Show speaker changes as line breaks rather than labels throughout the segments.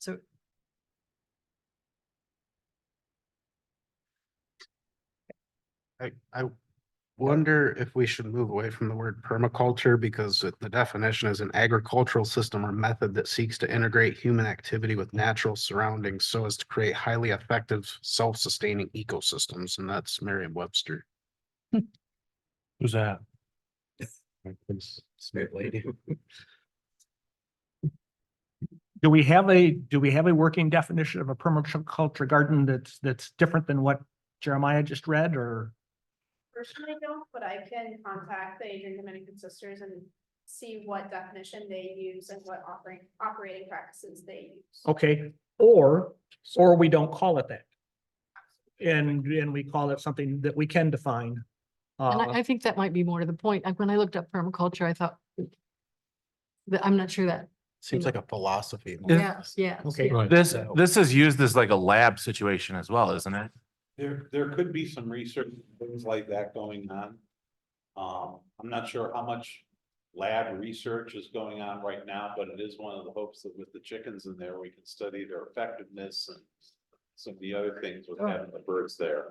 So.
I, I wonder if we should move away from the word permaculture because it- the definition is an agricultural system or method that seeks to integrate human activity with natural surroundings so as to create highly effective, self-sustaining ecosystems, and that's Merriam-Webster.
Who's that?
Smith lady.
Do we have a, do we have a working definition of a permaculture garden that's, that's different than what Jeremiah just read or?
Personally, I don't, but I can contact the Adrian Dominican Sisters and see what definition they use and what offering, operating practices they use.
Okay, or, or we don't call it that. And, and we call it something that we can define.
And
Uh,
I, I think that might be more to the point. Like when I looked up permaculture, I thought that I'm not sure that.
Seems like a philosophy.
Yeah.
Yes, yes.
Okay.
yes.
This,
So-
this is used as like a lab situation as well, isn't it?
There, there could be some research, things like that going on. Um, I'm not sure how much lab research is going on right now, but it is one of the hopes that with the chickens in there, we can study their effectiveness and some of the other things with having the birds there.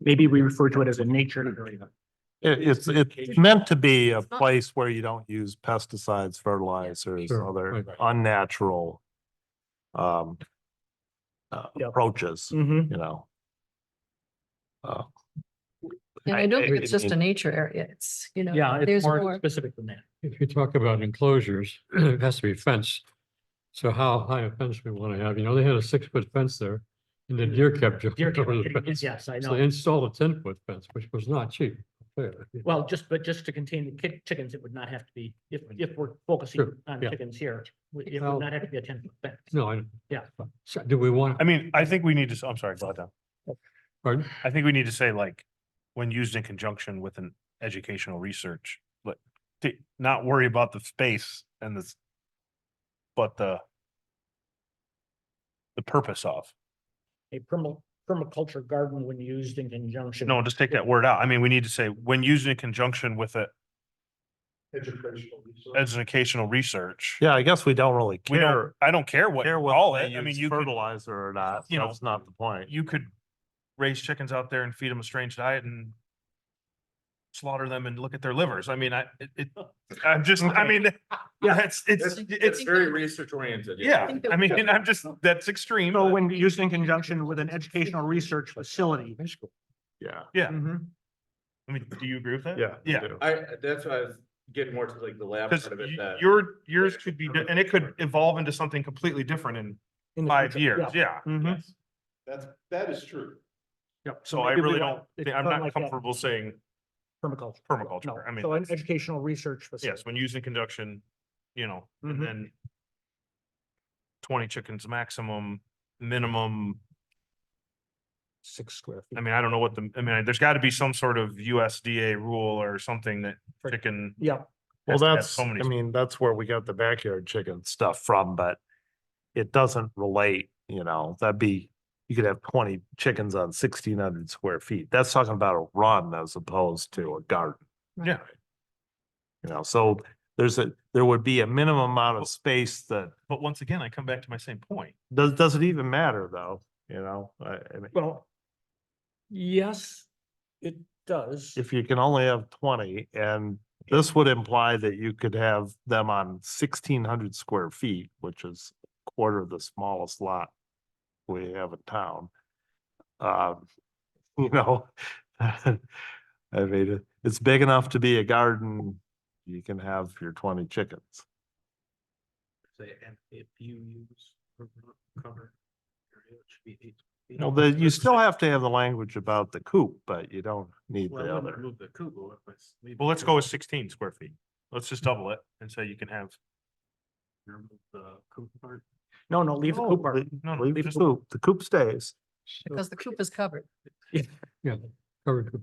Maybe we refer to it as a nature area.
It, it's, it's meant to be a
It's not-
place where you don't use pesticides, fertilizers,
Sure,
other
right.
unnatural um, uh,
Yep.
approaches,
Mhm.
you know? Uh,
And I don't
I-
think it's just
it-
a nature area. It's, you know.
Yeah, it's
there's
more specific than that.
If you talk about enclosures, it has to be fenced. So how high a fence we want to have, you know, they had a six foot fence there and the deer kept jumping
Deer
over the
kept-
fence.
Yes, I
So they
know.
installed a ten foot fence, which was not cheap. fair.
Well, just, but just to contain the ki- chickens, it would not have to be, if, if we're focusing
Sure,
on
yeah.
chickens here, we- it would
Well-
not have to be a ten foot fence.
No, I.
Yeah.
So Do we want,
I mean, I think we need to, s- I'm sorry, go ahead. Don.
pardon?
I think we need to say like, when used in conjunction with an educational research, but to not worry about the space and this, but the the purpose of,
a perma, permaculture garden when used in conjunction.
no, just take that word out. I mean, we need to say, when used in conjunction with a educational research.
Yeah, I guess we don't really
We
care,
don't, I don't care what,
care
you
whether
call
they
it. I mean,
use
you could,
fertilizer or not,
you know,
that's not the point.
you could raise chickens out there and feed them a strange diet and slaughter them and look at their livers. I mean, I, it, it- I'm just, I
Okay.
mean, yeah, it's, it's,
That's,
it's,
very research oriented.
yeah,
think that-
I mean, I'm just, that's extreme.
So
but-
when used in conjunction with an educational research facility.
Yeah.
Yeah,
Mm-hmm.
I mean, do you agree with that?
you
Yeah,
do.
I, that's why I was getting more to like the lab
because
part of it. that-
your, yours could be, di- and it could evolve into something completely different in
In the
five
future,
years, yeah.
Mhm.
Yes, That's, that is true.
Yep.
So I
maybe we
really
want
don't,
it
thi- I'm
something
not
like that,
comfortable saying,
Permaculture.
permaculture,
No,
I mean,
So an
that's-
educational research facility.
yes, Mm-hmm. when used in conjunction, you know,
Mhm.
and then twenty chickens maximum, minimum,
Six square
I
feet.
mean, I don't know what the, I mean, there's got to be some sort of USDA rule or something that
For-
chicken.
Yep.
Well,
has to have
that's,
so
I
many-
mean, that's where we got the backyard chicken stuff from, but it doesn't relate, you know, that'd be, you could have twenty chickens on sixteen hundred square feet. That's talking about a run as opposed to a garden.
Yeah.
You know, so there's a, there would be a minimum amount of space that,
But once again, I come back to my same point.
does, does it even matter though? You know, I, I mean,
Well, yes, it does.
if you can only have twenty and this would imply that you could have them on sixteen hundred square feet, which is a quarter of the smallest lot we have in town. Um, you know, I mean, it- it's big enough to be a garden. You can have your twenty chickens. You know, the, you still have to have the language about the coop, but you don't need the other.
Well, let's go with sixteen square feet. Let's just double it and say you can have.
No, no, leave the coop part.
No, no,
Leave the
just-
coop, the coop stays.
Because the coop is covered.
Yeah. covered.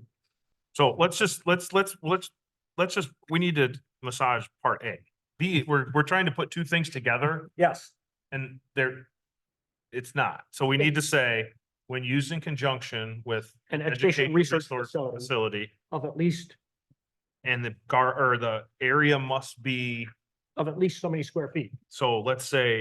So let's just, let's, let's, let's, let's just, we need to massage part A. B, we're, we're trying to put two things together
Yes,
and they're, it's not. So we need to say, when used in conjunction with
an
education
educational research
resource
facility
facility
of at least,
and the gar, or the area must be,
of at least so many square feet.
so let's say